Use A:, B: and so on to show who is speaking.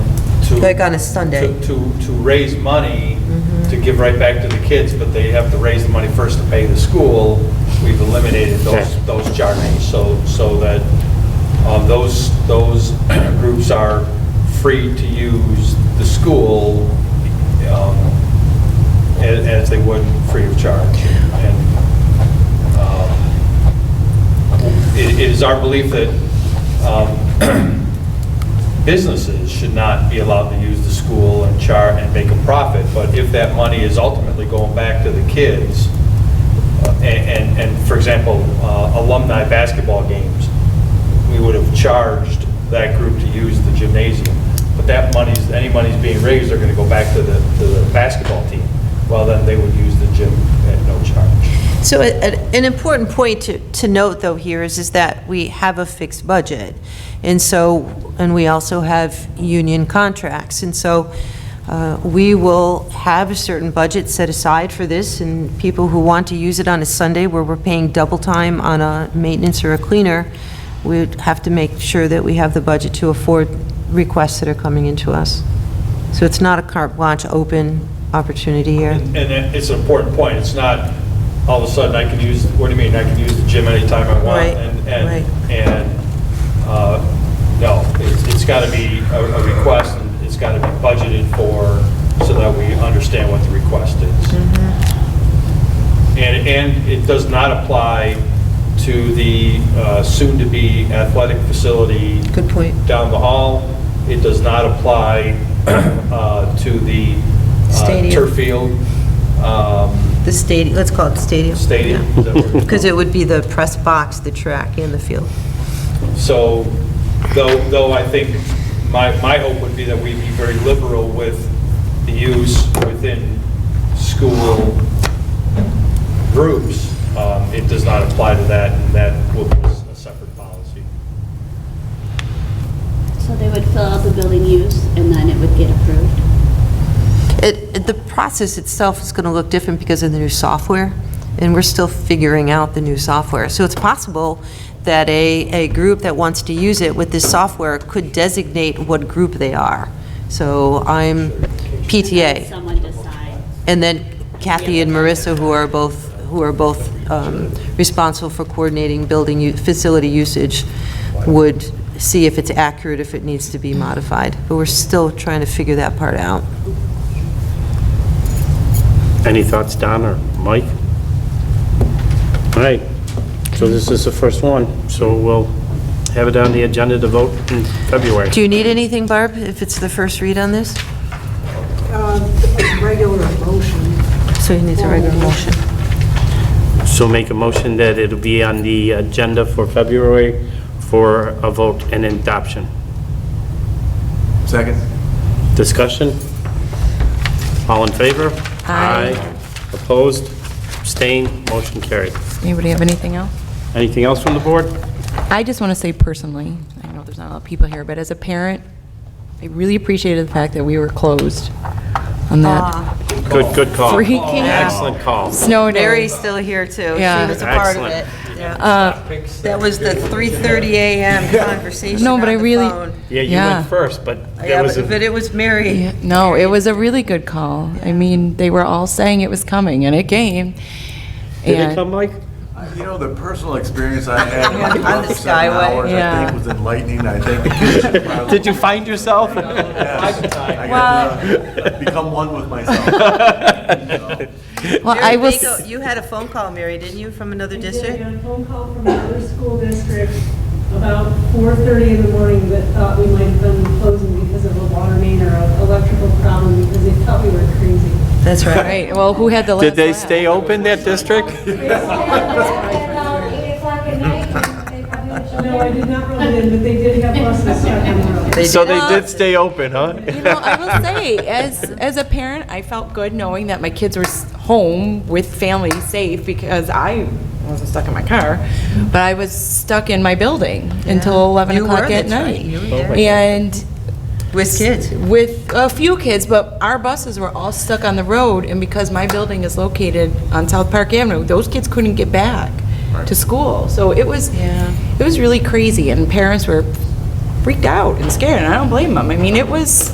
A: to...
B: Like on a Sunday. Mm-hmm.
A: To, to, to raise money to give right back to the kids, but they have to raise the money first to pay the school. We've eliminated those, those charges, so, so that um, those, those groups are free to use the school um, a- as they would free of charge. And um, it it is our belief that um, businesses should not be allowed to use the school and char, and make a profit, but if that money is ultimately going back to the kids, uh, and, and- and, for example, uh, alumni basketball games, we would have charged that group to use the gymnasium, but that money's, any money's being raised are going to go back to the, to the basketball team. Well, then they would use the gym at no charge.
C: So a- a- an important point to to note, though, here is, is that we have a fixed budget, and so, and we also have union contracts, and so uh, we will have a certain budget set aside for this, and people who want to use it on a Sunday where we're paying double time on a maintenance or a cleaner, we'd have to make sure that we have the budget to afford requests that are coming into us. So it's not a carte blanche open opportunity here.
A: And and it's an important point, it's not, all of a sudden, I can use, what do you mean, I can use the gym anytime I want?
C: Right,
A: and-
C: right.
A: And, and, uh, no, it's, it's got to be a a request, and it's got to be budgeted for, so that we understand what the request is.
C: Mm-hmm.
A: And, and it does not apply to the uh, soon-to-be athletic facility
B: Good point.
A: down the hall. It does not apply uh, to the uh,
B: Stadium.
A: turf field, um,
B: The stadium, let's call it the stadium.
A: stadium. Is that what it's
C: Because it would be the press box, the track, and the field.
A: called? So, though, though I think, my, my hope would be that we be very liberal with the use within school groups, um, it does not apply to that, and that will be a separate policy.
D: So they would fill out the building use, and then it would get approved?
C: It, it- the process itself is going to look different because of the new software, and we're still figuring out the new software. So it's possible that a, a group that wants to use it with this software could designate what group they are. So I'm PTA,
D: Someone decide.
C: and then Kathy and Marissa, who are both, who are both um, responsible for coordinating building, u- facility usage, would see if it's accurate, if it needs to be modified. But we're still trying to figure that part out.
E: Any thoughts, Don or Mike? All right, so this is the first one, so we'll have it on the agenda to vote in February.
C: Do you need anything, Barb, if it's the first read on this?
F: Uh, Regular motion.
C: So you need a regular motion.
E: So make a motion that it'll be on the agenda for February for a vote and adoption.
G: Second.
E: Discussion? All in favor? Aye. Opposed? Abstained? Motion carried.
H: Anybody have anything else?
E: Anything else from the board?
H: I just want to say personally, I know there's not a lot of people here, but as a parent, I really appreciated the fact that we were closed on that
E: Good, good call.
H: freaking
E: Excellent call.
H: snow day.
C: Mary's still here, too. She
H: Yeah.
C: was a part of it.
E: Excellent.
C: Yeah.
H: uh,
C: That was the 3:30 AM conversation
H: No, but I
C: on the
H: really-
C: phone.
E: Yeah, you
H: Yeah.
E: went first, but
C: Yeah,
E: there was a...
C: but but it was Mary.
H: Yeah, No, it was a really good call. I mean, they were all saying it was coming, and it came.
E: Did
H: And-
E: it come, Mike?
G: You know, the personal experience I had
C: Yeah,
G: with
C: on the
G: the seven
C: Skyway.
G: hours, I
H: Yeah.
G: think was enlightening. I think the kids should probably.
E: Did you find yourself?
G: Yes. I got, uh, Become one with myself.
H: Well,
C: Mary
H: I will,
C: Baco,
H: s-
C: You had a phone call, Mary, didn't you, from another
I: I did
C: district?
I: get a phone call from another school district about 4:30 in the morning that thought we might have been closing because of a water main or an electrical problem because they thought we were crazy.
C: That's right.
H: right, well, who had the last
E: Did they
H: laugh?
E: stay open, that district?
J: Eight o'clock at night, they probably would show
I: No, I did not roll in, but they did have buses stuck on the road.
E: So they
H: Well-
E: did stay open, huh?
H: You know, I will say, as, as a parent, I felt good knowing that my kids were s- home with family safe because I wasn't stuck in my car, but I was stuck in my building until 11
C: You were,
H: o'clock at
C: that's right.
H: night.
C: You were there.
H: And
C: With kids.
H: with a few kids, but our buses were all stuck on the road, and because my building is located on South Park Avenue, those kids couldn't get back to school. So it was, it was really crazy, and parents were freaked out and scared, and I don't blame them. I mean, it was,